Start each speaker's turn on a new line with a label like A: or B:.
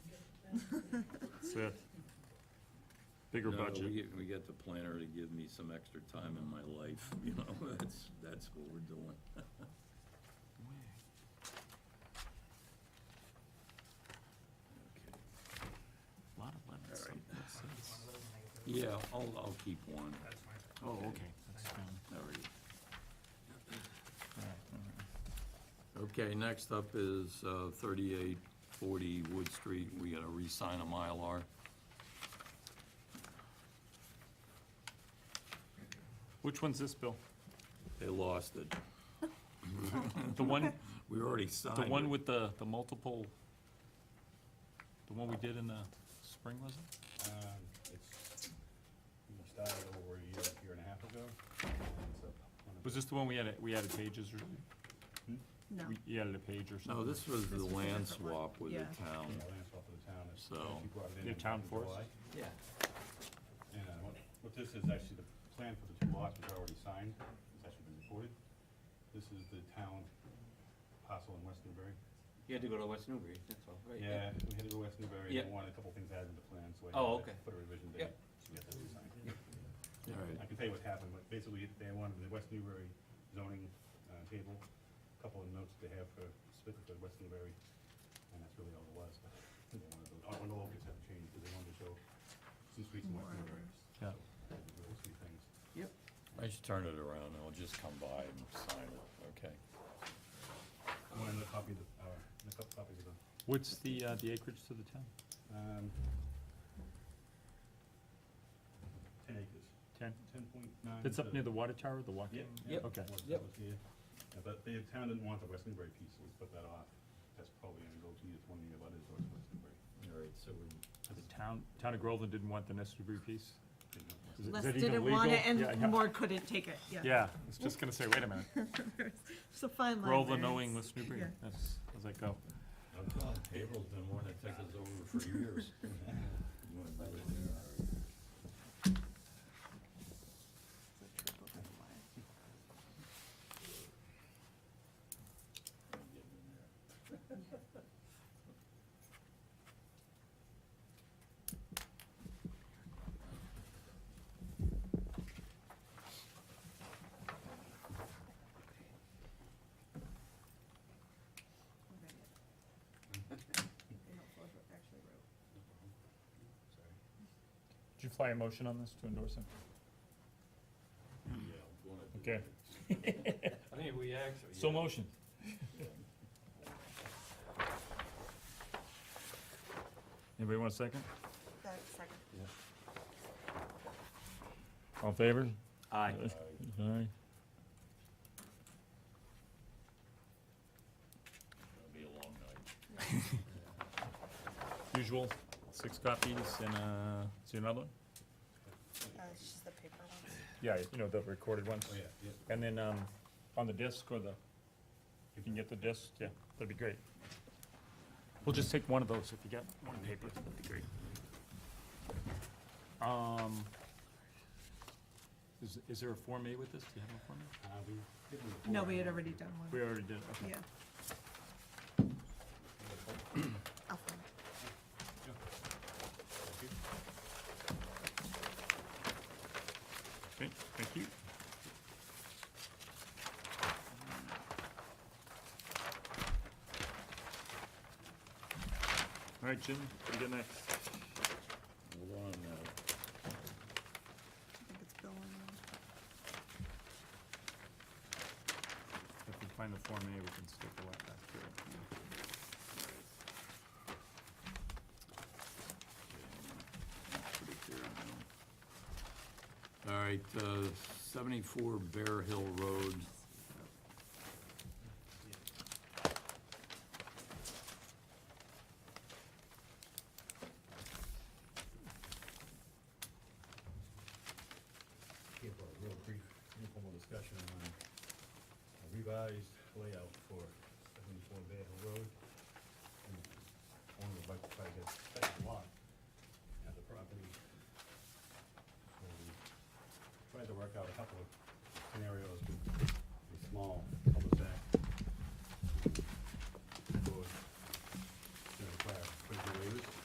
A: That's it. Bigger
B: No, we
A: budget.
B: get- We get the planner to give me some extra time in my life, you know, that's, that's what we're doing. Okay.
C: Lot of lemons,
B: All right.
C: what's this?
B: Yeah, I'll, I'll keep one,
C: Oh, okay, that's
D: Um,
C: fine.
B: all right.
C: All right, all right.
B: Okay, next up is uh, thirty-eight forty Wood Street, we gotta re-sign a Mylar.
A: Which one's this, Bill?
B: They lost it,
A: The one,
B: we already signed
A: the one
B: it.
A: with the, the multiple, the one we did in the spring, was it?
D: Um, It's, we started over a year, year and a half ago. It's up on a-
A: Was this the one we added, we added pages or something?
E: No.
A: We- You added a page or something?
B: No, Oh, this was
E: This
B: the
E: was a
B: land
E: different one.
B: swap with the
E: Yeah.
B: town.
D: Yeah, land swap of the town. It's-
B: So-
D: she brought it in
A: Your
D: in
A: town force?
D: July.
C: Yeah.
D: And uh, what, what this is actually, the plan for the two lots was already signed, it's actually been recorded. This is the town parcel in West Newbury.
F: You had to go to West Newbury, that's all, right?
D: Yeah, we had to go West Newbury,
F: Yeah.
D: and wanted a couple things added to the plan, so I
F: Oh,
D: had to
F: okay.
D: put a revision
F: Yeah.
D: date. to get that re-signed.
B: All right,
D: I can tell you what happened, but basically, they wanted the West Newbury zoning uh, table, a couple of notes they have for Smith for West Newbury, and that's really all it was. They wanted those- All the locals have changed, because they wanted to show some streets in West
E: More.
D: Newbury.
A: Yeah.
D: Those three things.
B: I should turn it around, I'll just come by and sign it, okay?
D: I wanted another copy of the, uh, a couple copies of the,
A: What's the, uh, the acreage to the town?
D: um, ten acres,
A: Ten?
D: ten point nine.
A: It's up near the water tower, the walking?
D: Yeah.
F: Yep.
A: Okay.
F: Yep.
D: But the town didn't want the West Newbury piece, so we put that off. That's probably gonna go to either one of the others or West Newbury.
B: All right, so we
A: The town, town of Groveland didn't want the Nestlebury piece?
D: They don't
A: Is it-
D: want-
A: is
E: Les
A: that even
E: didn't want it,
A: legal? Yeah, yeah.
E: and Ward couldn't take it, yeah.
A: Yeah, I was just gonna say, wait a minute,
E: It's a fine line there.
A: Groveland knowing
E: It's-
A: West Newbury,
E: yeah.
A: that's, how's that go?
B: April's been wanting to take us over for years. You wanna do it there, all right.
E: It's a triple double wire.
B: I'm getting in there.
E: We'll get it. Be helpful if it actually wrote.
D: Sorry.
A: Did you fly a motion on this to endorse him?
B: Yeah, I'm gonna do
A: Okay.
B: it. I mean, we actually.
A: So
B: yeah.
A: motion. Anybody want a second?
E: That's second.
A: All in favor?
F: Aye.
A: Aye.
B: It'll be a long night.
A: Usual, six copies and, uh, see another one?
E: Uh, it's just the paper one.
A: Yeah, you know, the recorded ones.
D: Oh, yeah, yeah.
A: And then, um, on the disc or the, if you can get the disc, yeah, that'd be great. We'll just take one of those if you get one paper, that'd be great. Um, is, is there a Form A with this? Do you have a Form A?
D: Uh, we did it
E: No,
D: before.
E: we had already done one,
A: We already did, okay.
E: yeah. I'll find it.
A: Okay, thank you. All right, Jim, what do you got next?
B: Hold on now.
E: I think it's Bill and, uh,
A: If we find the Form A, we can stick the wet back to it.
B: Pretty clear on that one. All right, uh, seventy-four Bear Hill Road.
D: Give a real brief informal discussion on a revised layout for seventy-four Bear Hill Road.